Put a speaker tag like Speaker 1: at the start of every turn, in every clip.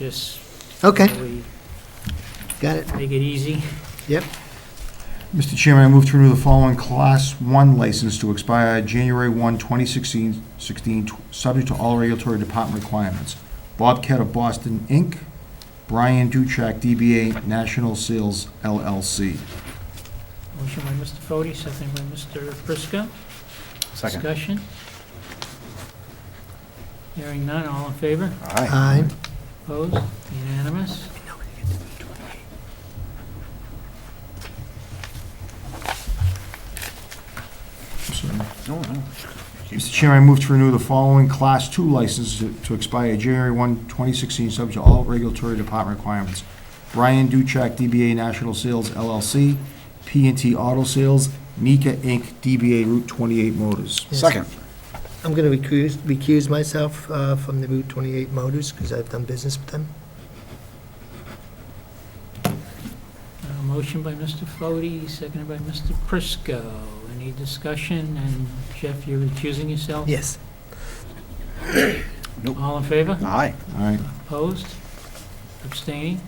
Speaker 1: Just
Speaker 2: Okay,
Speaker 1: we
Speaker 2: got it,
Speaker 1: make it easy.
Speaker 2: yep.
Speaker 3: Mr. Chairman, I move to renew the following Class 1 license to expire January 1, 2016, 16, tw- subject to all regulatory department requirements. Bobcat of Boston, Inc., Brian Duchek, DBA National Sales LLC.
Speaker 1: Motion by Mr. Fode, second by Mr. Prisco. Discussion? Hearing none, all in favor?
Speaker 2: Aye.
Speaker 1: Opposed? Unanimous?
Speaker 3: So- Mr. Chairman, I move to renew the following Class 2 license to- to expire January 1, 2016, subject to all regulatory department requirements. Brian Duchek, DBA National Sales LLC, p and T Auto Sales, Nika Inc., DBA Route 28 Motors.
Speaker 4: Second.
Speaker 2: I'm going to recuse, recuse myself uh, from the Route 28 Motors because I've done business with them.
Speaker 1: Uh, Motion by Mr. Fode, seconded by Mr. Prisco. Any discussion? And Jeff, you're recusing yourself?
Speaker 2: Yes.
Speaker 1: All in favor?
Speaker 4: Aye.
Speaker 3: All right.
Speaker 1: Opposed? Abstaining?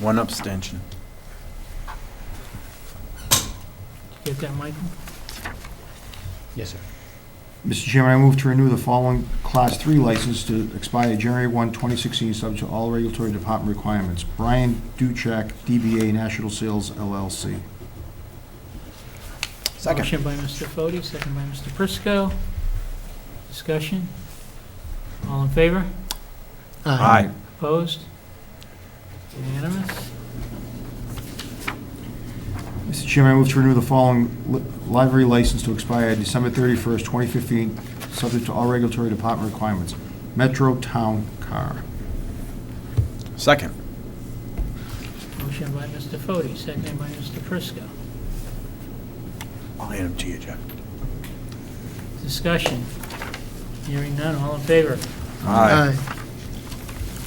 Speaker 4: One abstention.
Speaker 1: Did you Get that, Michael?
Speaker 4: Yes, sir.
Speaker 3: Mr. Chairman, I move to renew the following Class 3 license to expire January 1, 2016, subject to all regulatory department requirements. Brian Duchek, DBA National Sales LLC.
Speaker 4: Second.
Speaker 1: Motion by Mr. Fode, seconded by Mr. Prisco. Discussion? All in favor?
Speaker 4: Aye.
Speaker 1: Opposed? Unanimous?
Speaker 3: Mr. Chairman, I move to renew the following li- library license to expire December 31st, 2015, subject to all regulatory department requirements. Metro Town Car.
Speaker 4: Second.
Speaker 1: Motion by Mr. Fode, seconded by Mr. Prisco.
Speaker 4: I'll hand them to you, Jack.
Speaker 1: Discussion? Hearing none, all in favor?
Speaker 2: Aye.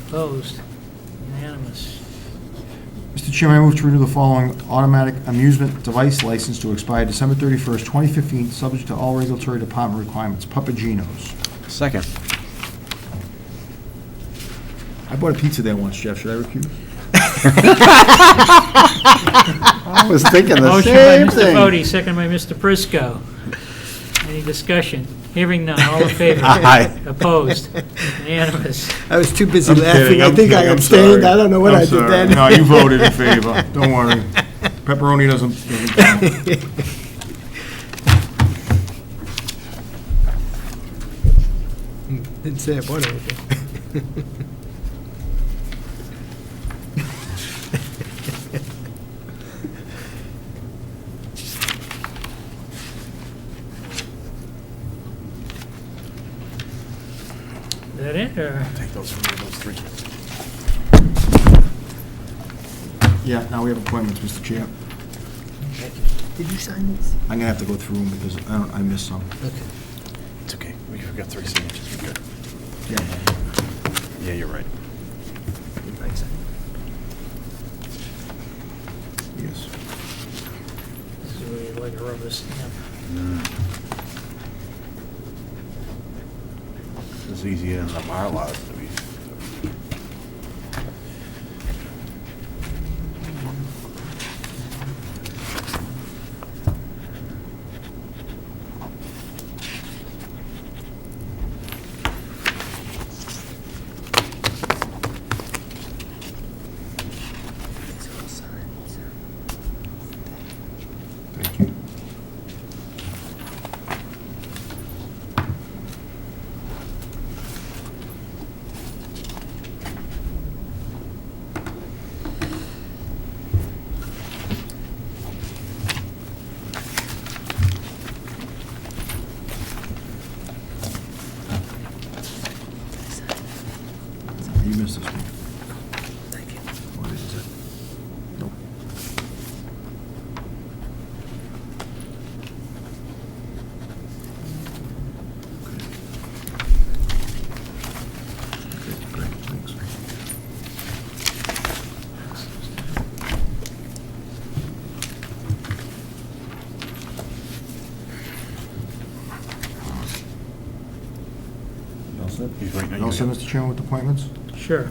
Speaker 1: Opposed? Unanimous?
Speaker 3: Mr. Chairman, I move to renew the following automatic amusement device license to expire December 31st, 2015, subject to all regulatory department requirements. Papagenos.
Speaker 4: Second.
Speaker 3: I bought a pizza there once, Jeff. Should I recuse? I was thinking
Speaker 1: Motion by Mr. Fode, seconded by Mr. Prisco. Any discussion? Hearing none, all in favor?
Speaker 4: Aye.
Speaker 1: Opposed? Unanimous?
Speaker 2: I was too busy laughing. I think I abstained. I don't know what I did then.
Speaker 3: No, you voted in favor. Don't worry. Pepperoni doesn't, doesn't count.
Speaker 2: Didn't say I bought anything.
Speaker 1: Is that it, or?
Speaker 4: Take those from me, those three.
Speaker 3: Yeah, now we have appointments, Mr. Chair.
Speaker 2: Did you sign this?
Speaker 3: I'm gonna have to go through them because I don't, I missed some.
Speaker 2: Okay.
Speaker 4: It's okay. We've got three signatures. We're good.
Speaker 3: Yeah.
Speaker 4: Yeah, you're right.
Speaker 2: Did Mike sign it?
Speaker 3: Yes.
Speaker 1: This is really like a rubber stamp.
Speaker 4: Mm. It's easier than the bylaws that we.
Speaker 2: It's all signed, so-
Speaker 3: Thank you. You missed this one.
Speaker 2: Thank you.
Speaker 3: What is it? Nope. Okay, great, thanks. You all set?
Speaker 4: He's right now.
Speaker 3: You all set, Mr. Chairman, with appointments?
Speaker 1: Sure.